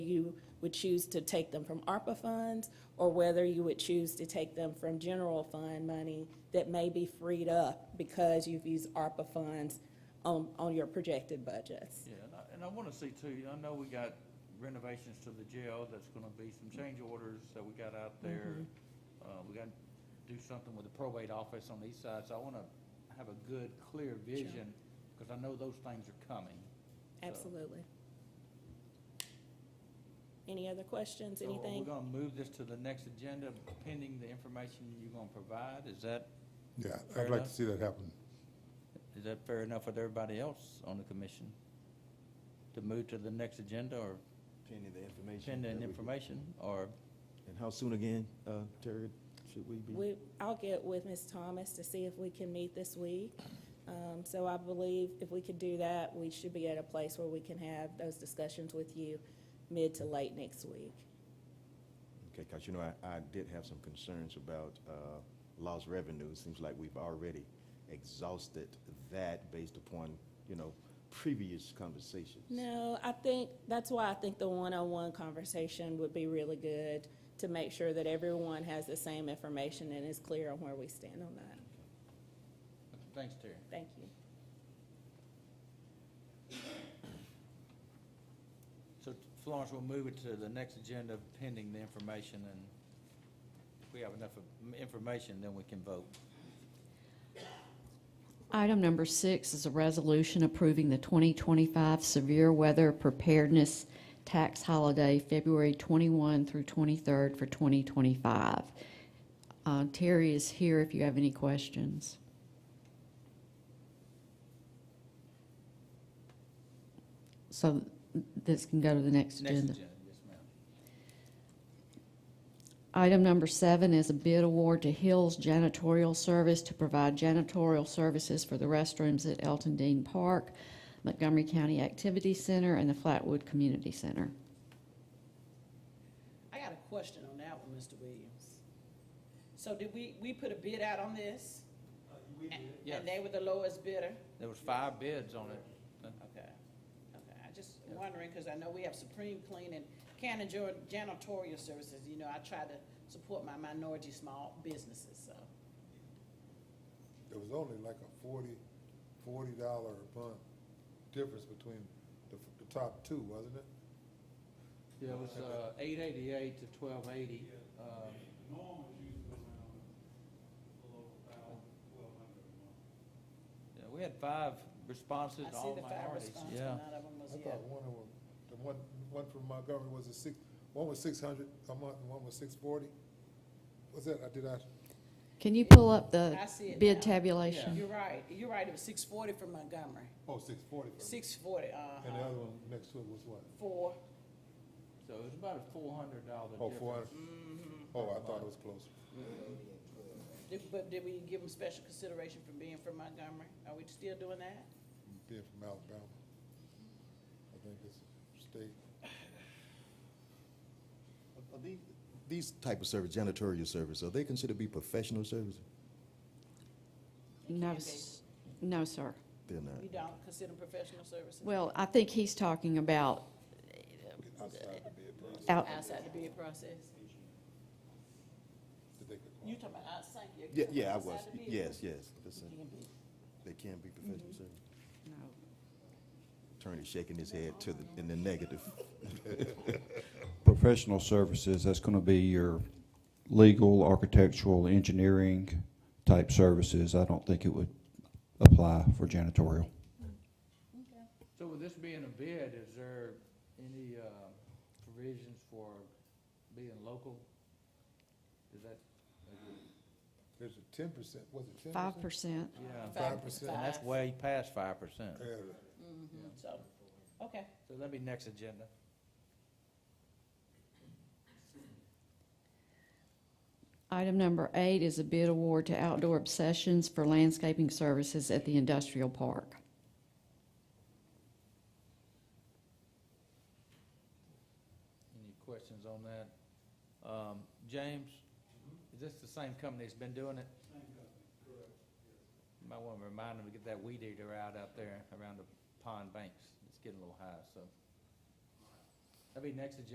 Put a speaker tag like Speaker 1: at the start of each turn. Speaker 1: you would choose to take them from ARPA funds or whether you would choose to take them from general fund money that may be freed up because you've used ARPA funds on, on your projected budgets.
Speaker 2: Yeah, and I, and I wanna see too, you know, I know we got renovations to the jail, that's gonna be some change orders that we got out there. Uh, we gotta do something with the probate office on the east side, so I wanna have a good, clear vision, cause I know those things are coming. So-
Speaker 1: Absolutely. Any other questions,
Speaker 2: So are we
Speaker 1: anything?
Speaker 2: gonna move this to the next agenda pending the information you're gonna provide? Is that,
Speaker 3: Yeah,
Speaker 2: Fair
Speaker 3: I'd like to
Speaker 2: enough.
Speaker 3: see that happen.
Speaker 2: is that fair enough with everybody else on the commission? To move to the next agenda or
Speaker 4: Pending the information. that
Speaker 2: pending
Speaker 4: we-
Speaker 2: information or?
Speaker 4: And how soon again, uh, Terry, should we be?
Speaker 1: We, I'll get with Ms. Thomas to see if we can meet this week. Um, so I believe if we could do that, we should be at a place where we can have those discussions with you mid to late next week.
Speaker 4: Okay, because you know, I, I did have some concerns about uh, lost revenue. It seems like we've already exhausted that based upon, you know, previous conversations.
Speaker 1: No, I think, that's why I think the one-on-one conversation would be really good to make sure that everyone has the same information and is clear on where we stand on that.
Speaker 2: Thanks, Terry.
Speaker 1: Thank you.
Speaker 2: So Florence, we'll move it to the next agenda pending the information, and if we have enough of m- information, then we can vote.
Speaker 5: Item number six is a resolution approving the 2025 Severe Weather Preparedness Tax Holiday, February 21 through 23rd for 2025. Uh, Terry is here if you have any questions. So this can go to the next
Speaker 2: Next
Speaker 5: agenda.
Speaker 2: agenda, yes, ma'am.
Speaker 5: Item number seven is a bid award to Hills Janitorial Service to provide janitorial services for the restrooms at Elton Dean Park, Montgomery County Activity Center, and the Flatwood Community Center.
Speaker 6: I got a question on that one, Mr. Williams. So did we, we put a bid out on this? We did.
Speaker 2: Uh, Yes.
Speaker 6: And they were the lowest bidder?
Speaker 2: There was five bids on it.
Speaker 6: Okay, okay. I just wondering, because I know we have Supreme Clean and Cannon Jor- Janitorial Services. You know, I try to support my minority small businesses, so.
Speaker 3: There was only like a forty, forty dollar a month difference between the, f- the top two, wasn't it?
Speaker 2: It was uh, eight eighty-eight to twelve eighty.
Speaker 7: Norm is usually around below a thousand, twelve hundred a month.
Speaker 2: We had five responses,
Speaker 6: I
Speaker 2: to
Speaker 6: see
Speaker 2: all
Speaker 6: the fire
Speaker 2: minorities,
Speaker 6: response,
Speaker 2: yeah.
Speaker 6: but none of them was
Speaker 3: I
Speaker 6: yet.
Speaker 3: thought one of them, the one, one from Montgomery was a six, one was six hundred a month and one was six forty. Was that, I did I,
Speaker 5: Can you pull up the
Speaker 6: I see it now.
Speaker 5: bid tabulation?
Speaker 6: You're right, you're right. It was six forty for Montgomery,
Speaker 3: oh, six forty for me.
Speaker 6: six forty,
Speaker 3: And the
Speaker 6: uh-huh,
Speaker 3: other one next to it was what?
Speaker 6: for,
Speaker 2: So it was about a four hundred dollar
Speaker 3: Oh,
Speaker 2: difference.
Speaker 3: four hundred?
Speaker 6: mm-hmm.
Speaker 3: Oh, I thought it was closer.
Speaker 6: did- but did we give them special consideration for being from Montgomery? Are we still doing that?
Speaker 3: Being from Alabama. I think it's state.
Speaker 4: Are- are these- These type of service, janitorial service, are they considered to be professional services?
Speaker 5: No, s- no, sir.
Speaker 4: They're not.
Speaker 6: You don't consider professional services?
Speaker 5: Well, I think he's talking about
Speaker 3: outside the bid price
Speaker 5: out,
Speaker 6: Outside the bid process?
Speaker 3: that they could
Speaker 6: You
Speaker 3: qualify.
Speaker 6: talking about outside? you're
Speaker 4: Yeah,
Speaker 6: talking
Speaker 4: yeah, I
Speaker 6: about
Speaker 4: was.
Speaker 6: outside the bid
Speaker 4: Yes, yes. that's it.
Speaker 6: process? Can be.
Speaker 4: They can be professional service.
Speaker 5: no.
Speaker 4: Attorney shaking his head to the, in the negative.
Speaker 7: Professional services, that's gonna be your legal, architectural, engineering type services. I don't think it would apply for janitorial.
Speaker 2: So with this being a bid, is there any uh, provisions for being local? Is that,
Speaker 3: There's a ten percent, was it ten percent?
Speaker 5: Five percent.
Speaker 2: yeah,
Speaker 3: Five Mm-hmm. percent.
Speaker 2: and that's way past five percent.
Speaker 6: Mhm, So, okay.
Speaker 2: So that'd be next agenda.
Speaker 5: Item number eight is a bid award to Outdoor Obsessions for landscaping services at the industrial park.
Speaker 2: Any questions on that? Um, James, is this the same company that's been doing it? Same company, correct. Might want to remind them to get that weed eater out out there around the pond banks. It's getting a little high, so. That'd be next agenda.